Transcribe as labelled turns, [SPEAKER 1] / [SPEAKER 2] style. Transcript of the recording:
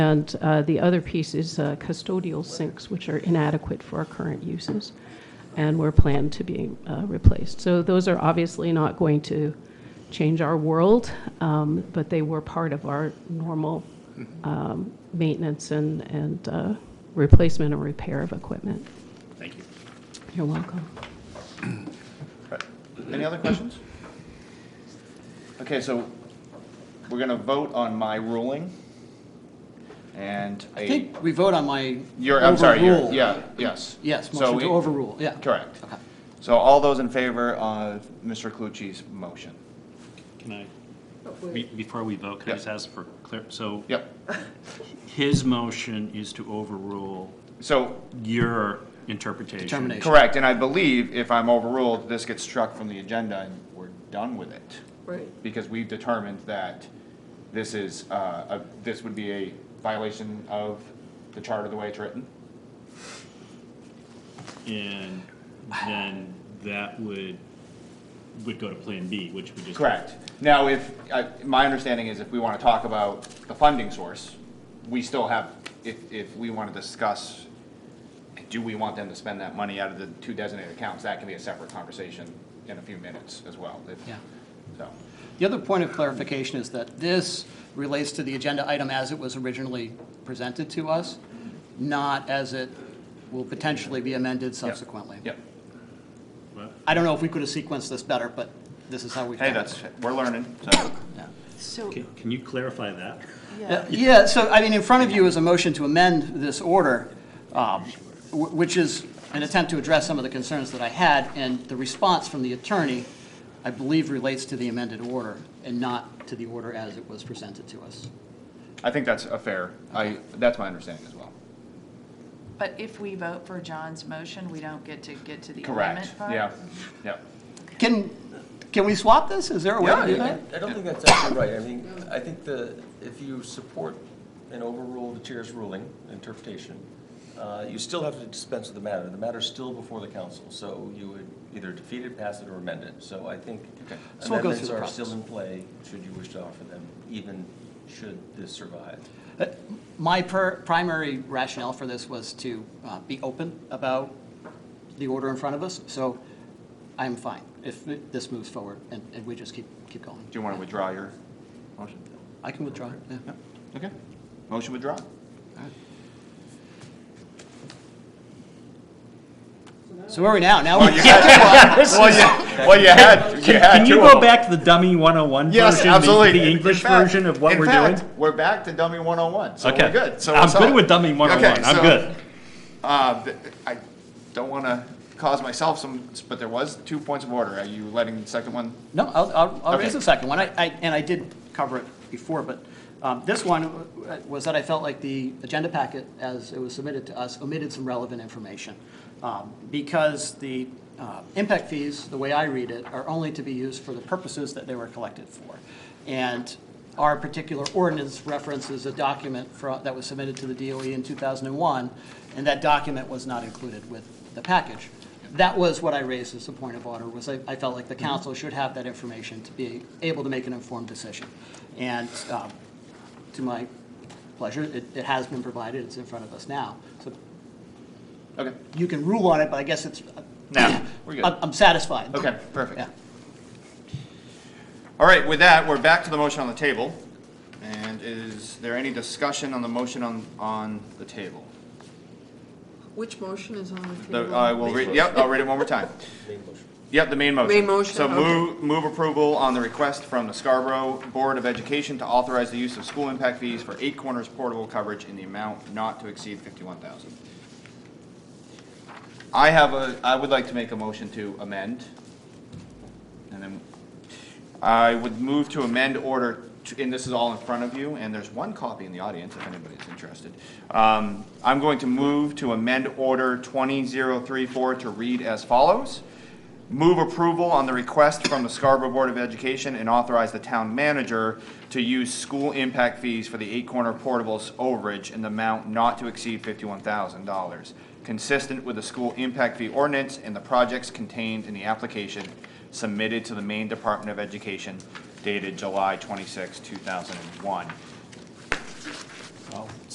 [SPEAKER 1] And uh, the other piece is uh, custodial sinks, which are inadequate for our current uses and were planned to be uh, replaced. So those are obviously not going to change our world, um, but they were part of our normal um, maintenance and, and uh, replacement and repair of equipment.
[SPEAKER 2] Thank you.
[SPEAKER 1] You're welcome.
[SPEAKER 3] Right. Any other questions? Okay, so we're gonna vote on my ruling and
[SPEAKER 4] I
[SPEAKER 3] a,
[SPEAKER 4] think we vote on my.
[SPEAKER 3] your, I'm sorry, your,
[SPEAKER 4] overrule.
[SPEAKER 3] yeah, yes.
[SPEAKER 4] Yes,
[SPEAKER 3] So
[SPEAKER 4] motion
[SPEAKER 3] we-
[SPEAKER 4] to overrule, yeah.
[SPEAKER 3] Correct.
[SPEAKER 4] Okay.
[SPEAKER 3] So all those in favor of Mr. Clucci's motion?
[SPEAKER 2] Can I, be- before we vote, can I
[SPEAKER 3] Yep.
[SPEAKER 2] just ask for clear, so
[SPEAKER 3] Yep,
[SPEAKER 2] his motion is to overrule
[SPEAKER 3] so,
[SPEAKER 2] your interpretation?
[SPEAKER 4] Determination.
[SPEAKER 3] correct, and I believe if I'm overruled, this gets struck from the agenda and we're done with it.
[SPEAKER 5] Right.
[SPEAKER 3] Because we've determined that this is, uh, a, this would be a violation of the charter the way it's written.
[SPEAKER 2] And then that would, would go to Plan B, which we just.
[SPEAKER 3] Correct. Now, if, I- my understanding is if we want to talk about the funding source, we still have, if, if we want to discuss, do we want them to spend that money out of the two designated accounts, that can be a separate conversation in a few minutes as well. if-
[SPEAKER 4] Yeah.
[SPEAKER 3] So,
[SPEAKER 4] The other point of clarification is that this relates to the agenda item as it was originally presented to us, not as it will potentially be amended subsequently.
[SPEAKER 3] yep.
[SPEAKER 2] What?
[SPEAKER 4] I don't know if we could have sequenced this better, but this is how we've
[SPEAKER 3] Hey,
[SPEAKER 4] done it.
[SPEAKER 3] that's, we're learning, so,
[SPEAKER 4] Yeah.
[SPEAKER 5] So,
[SPEAKER 2] Can can you clarify that?
[SPEAKER 4] Yeah,
[SPEAKER 5] yeah,
[SPEAKER 4] Yeah, so, I mean, in front of you is a motion to amend this order, um, wh- which is an attempt to address some of the concerns that I had, and the response from the attorney, I believe, relates to the amended order and not to the order as it was presented to us.
[SPEAKER 3] I think that's a fair, I, that's my understanding as well.
[SPEAKER 5] but if we vote for John's motion, we don't get to get to the
[SPEAKER 3] Correct,
[SPEAKER 5] amendment part?
[SPEAKER 3] yeah, yep.
[SPEAKER 4] Can, can we swap this? Is there a way
[SPEAKER 6] Yeah,
[SPEAKER 4] to do
[SPEAKER 6] I
[SPEAKER 4] that?
[SPEAKER 6] I don't think that's actually right. I mean, I think the, if you support and overrule the chair's ruling, interpretation, uh, you still have to dispense with the matter. The matter's still before the council, so you would either defeat it, pass it, or amend it. So I think
[SPEAKER 3] Okay.
[SPEAKER 4] So we'll go through
[SPEAKER 6] amendments
[SPEAKER 4] the
[SPEAKER 6] are
[SPEAKER 4] process.
[SPEAKER 6] still in play, should you wish to offer them, even should this survive.
[SPEAKER 4] Uh, My per- primary rationale for this was to uh, be open about the order in front of us, so I'm fine if this moves forward and and we just keep, keep going.
[SPEAKER 3] Do you want to withdraw your motion?
[SPEAKER 4] I can withdraw, yeah.
[SPEAKER 3] Yep, okay. Motion withdrawn.
[SPEAKER 4] So where are we now? Now we
[SPEAKER 3] Well, you, well, you had, you had
[SPEAKER 2] Can you
[SPEAKER 3] two of
[SPEAKER 2] go
[SPEAKER 3] them.
[SPEAKER 2] back to the dummy 101
[SPEAKER 3] Yes,
[SPEAKER 2] version, the-
[SPEAKER 3] absolutely.
[SPEAKER 2] the
[SPEAKER 3] In- in
[SPEAKER 2] English
[SPEAKER 3] fact-
[SPEAKER 2] version of what
[SPEAKER 3] in
[SPEAKER 2] we're
[SPEAKER 3] fact,
[SPEAKER 2] doing?
[SPEAKER 3] We're back to dummy 101, so
[SPEAKER 2] Okay.
[SPEAKER 3] we're good. So
[SPEAKER 2] I'm
[SPEAKER 3] we're
[SPEAKER 2] good
[SPEAKER 3] solid.
[SPEAKER 2] with dummy 101,
[SPEAKER 3] Okay,
[SPEAKER 2] I'm
[SPEAKER 3] so,
[SPEAKER 2] good.
[SPEAKER 3] uh, th- I don't want to cause myself some, but there was two points of order. Are you letting the second one?
[SPEAKER 4] No, I'll, I'll, I'll raise
[SPEAKER 3] Okay.
[SPEAKER 4] the second one, I, I, and I did cover it before, but, um, this one uh, was that I felt like the agenda packet, as it was submitted to us, omitted some relevant information. Um, because the, uh, impact fees, the way I read it, are only to be used for the purposes that they were collected for. And our particular ordinance references a document fro- that was submitted to the DOE in two thousand and one, and that document was not included with the package. That was what I raised as a point of order, was I, I felt like the council should have that information to be able to make an informed decision. And, um, to my pleasure, it, it has been provided, it's in front of us now. So
[SPEAKER 3] Okay,
[SPEAKER 4] you can rule on it, but I guess it's,
[SPEAKER 3] now, we're
[SPEAKER 4] I'm,
[SPEAKER 3] good.
[SPEAKER 4] I'm satisfied.
[SPEAKER 3] Okay, perfect.
[SPEAKER 4] Uh, Yeah.
[SPEAKER 3] All right, with that, we're back to the motion on the table. And is there any discussion on the motion on, on the table?
[SPEAKER 7] Which motion is on the
[SPEAKER 3] The- uh,
[SPEAKER 7] table?
[SPEAKER 3] I will read, yep, I'll read it one more time. Yep, the main motion.
[SPEAKER 7] Main motion,
[SPEAKER 3] So
[SPEAKER 7] okay.
[SPEAKER 3] move, move approval on the request from the Scarborough Board of Education to authorize the use of school impact fees for Eight Corners portable coverage in the amount not to exceed fifty-one thousand. I have a, I would like to make a motion to amend. And then, I would move to amend order, t- and this is all in front of you, and there's one copy in the audience if anybody's interested. Um, I'm going to move to amend order 20034 to read as follows. Move approval on the request from the Scarborough Board of Education and authorize the town manager to use school impact fees for the Eight Corner Portables overage in the amount not to exceed $51,000, consistent with the school impact fee ordinance and the projects contained in the application submitted to the Maine Department of Education dated July 26, 2001.